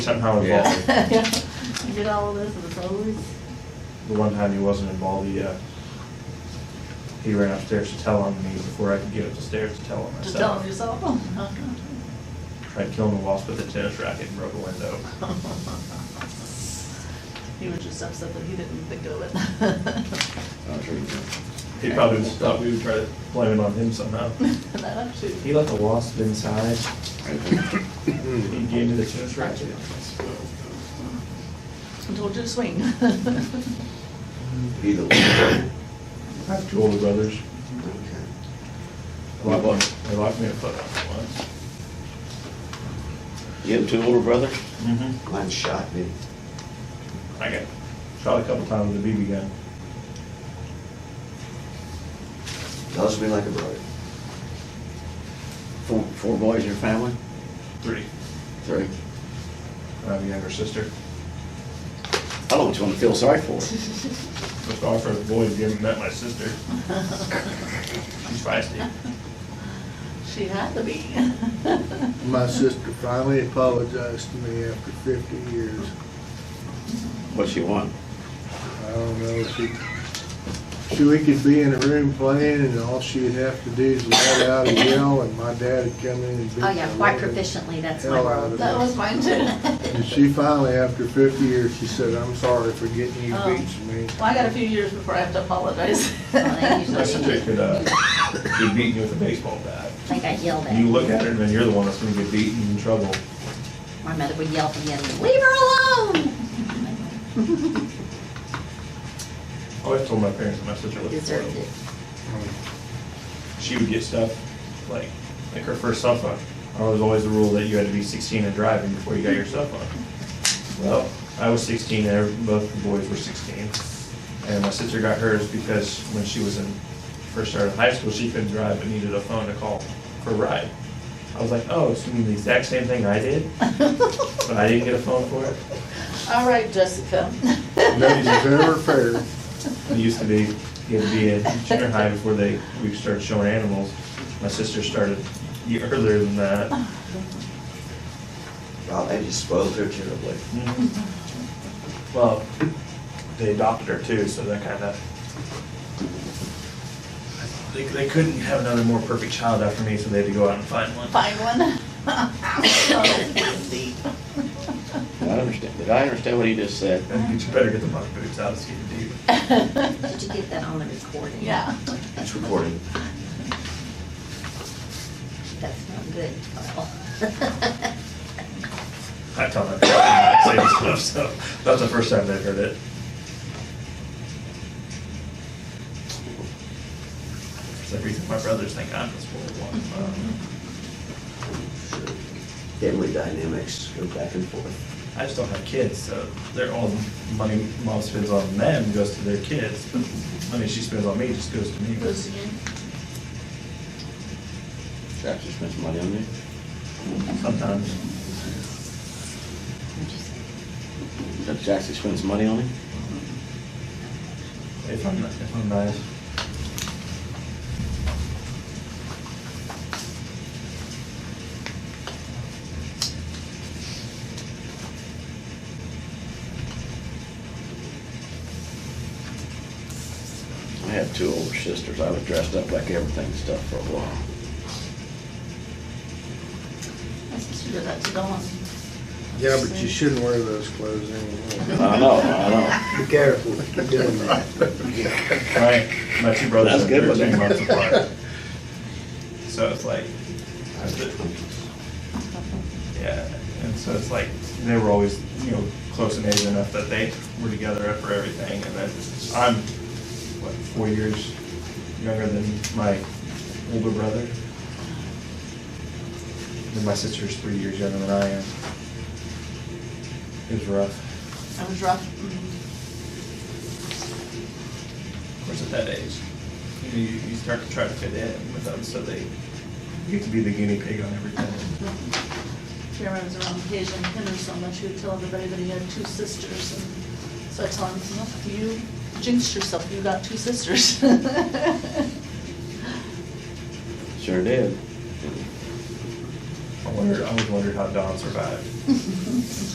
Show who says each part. Speaker 1: somehow involved.
Speaker 2: You did all of this and it's always,
Speaker 1: The one time he wasn't involved, he, uh, he ran upstairs to tell on me before I could get up the stairs to tell on
Speaker 2: just tell them
Speaker 1: myself.
Speaker 2: yourself. Oh,
Speaker 1: Tried killing a wasp with a tennis racket and broke a window.
Speaker 2: He was just upset that he didn't think of it.
Speaker 3: I'm sure you can.
Speaker 1: He probably just thought we would try to blame it on him somehow.
Speaker 2: That up to.
Speaker 1: He left a wasp inside,
Speaker 3: I think-
Speaker 1: he gave me the tennis racket. Mm-hmm.
Speaker 2: I told you to swing.
Speaker 3: Either way.
Speaker 1: I have two older brothers.
Speaker 3: Okay.
Speaker 1: They locked me- they locked me in a foot up once.
Speaker 3: You have two older brothers?
Speaker 1: Mm-hmm.
Speaker 3: Mine shot me.
Speaker 1: I got shot a couple times with a BB gun.
Speaker 3: Loves me like a brother. Four, four boys in your family?
Speaker 1: Three.
Speaker 3: Three.
Speaker 1: I have a younger sister.
Speaker 3: I don't want you to feel sorry for.
Speaker 1: Just offered a boy if you haven't met my sister. She's feisty.
Speaker 2: She had to be.
Speaker 4: My sister finally apologized to me after fifty years.
Speaker 3: What she want?
Speaker 4: I don't know, she, she, we could be in a room playing and all she'd have to do is let out a yell and my dad would come in and beat the
Speaker 5: Oh, yeah, quite
Speaker 4: living
Speaker 5: proficiently, that's my
Speaker 1: Oh,
Speaker 4: hell out
Speaker 5: role.
Speaker 4: of
Speaker 2: That was mine too.
Speaker 4: And she finally, after fifty years, she said, I'm sorry for getting you
Speaker 2: Oh.
Speaker 4: beats me.
Speaker 2: Well, I got a few years before I have to apologize.
Speaker 5: Well, they usually-
Speaker 1: My sister could, uh, be beating you with a baseball bat.
Speaker 5: I think I yelled
Speaker 1: You
Speaker 5: at,
Speaker 1: look at her and then you're the one that's gonna get beaten and in trouble.
Speaker 5: my mother would yell from the other room, leave her alone!
Speaker 1: I always told my parents that my sister was
Speaker 5: Deserved
Speaker 1: spoiled.
Speaker 5: it.
Speaker 4: Um,
Speaker 1: She would get stuff, like, like her first cell phone. There was always the rule that you had to be sixteen and driving before you got your cell phone. Well, I was sixteen and every- both the boys were sixteen. And my sister got hers because when she was in, first started high school, she couldn't drive but needed a phone to call for a ride. I was like, oh, so you mean the exact same thing I did? But I didn't get a phone for it?
Speaker 2: All right, Jessica.
Speaker 4: Nobody's ever fair.
Speaker 1: It used to be, you had to be in junior high before they, we started showing animals. My sister started ye- earlier than that.
Speaker 3: Well, they just spoiled her terribly.
Speaker 1: Well, they adopted her too, so that kind of, they, they couldn't have another more perfect child after me, so they had to go out and find one.
Speaker 2: Find one. Oh, indeed.
Speaker 3: I understand. Did I understand what he just said?
Speaker 1: And you better get the muck boots out, it's getting deep.
Speaker 5: Did you get that on the recording?
Speaker 2: Yeah.
Speaker 3: It's recorded.
Speaker 5: That's not good.
Speaker 1: I tell them, I say this stuff, so that's the first time they've heard it. For some reason, my brothers think I'm the spoiled one. Um,
Speaker 3: Family dynamics go back and forth.
Speaker 1: I just don't have kids, so they're all the money mom spends on them goes to their kids. but Money she spends on me just goes to me.
Speaker 2: Goes again.
Speaker 3: Perhaps you spent some money on you.
Speaker 1: Sometimes.
Speaker 3: Did Jackson spend some money on him?
Speaker 1: If I'm, if I'm nice.
Speaker 3: I had two older sisters. I was dressed up like everything and stuff for a while.
Speaker 2: My sister did that to Dawn.
Speaker 4: Yeah, but you shouldn't wear those clothes anymore.
Speaker 3: I know, I know.
Speaker 4: Be careful doing that.
Speaker 1: Right, my two brothers
Speaker 3: That's
Speaker 1: are
Speaker 3: good one
Speaker 1: thirteen
Speaker 3: there.
Speaker 1: months apart. So it's like, I was just- yeah, and so it's like, they were always, you know, close in age enough that they were together for everything, and then I'm, what, four years younger than my older brother? And my sister's three years younger than I am. It was rough.
Speaker 2: That was rough. Mm.
Speaker 1: Of course, at that age, you, know, you you start to try to fit in with them, so they. You get to be the guinea pig on everything.
Speaker 2: Jeremy was around Paige and Henry so much, he would tell everybody that he had two sisters. and So I told him, "No, you jinxed yourself, you got two sisters.
Speaker 3: Sure did.
Speaker 1: I wondered, I always wondered how Don survived.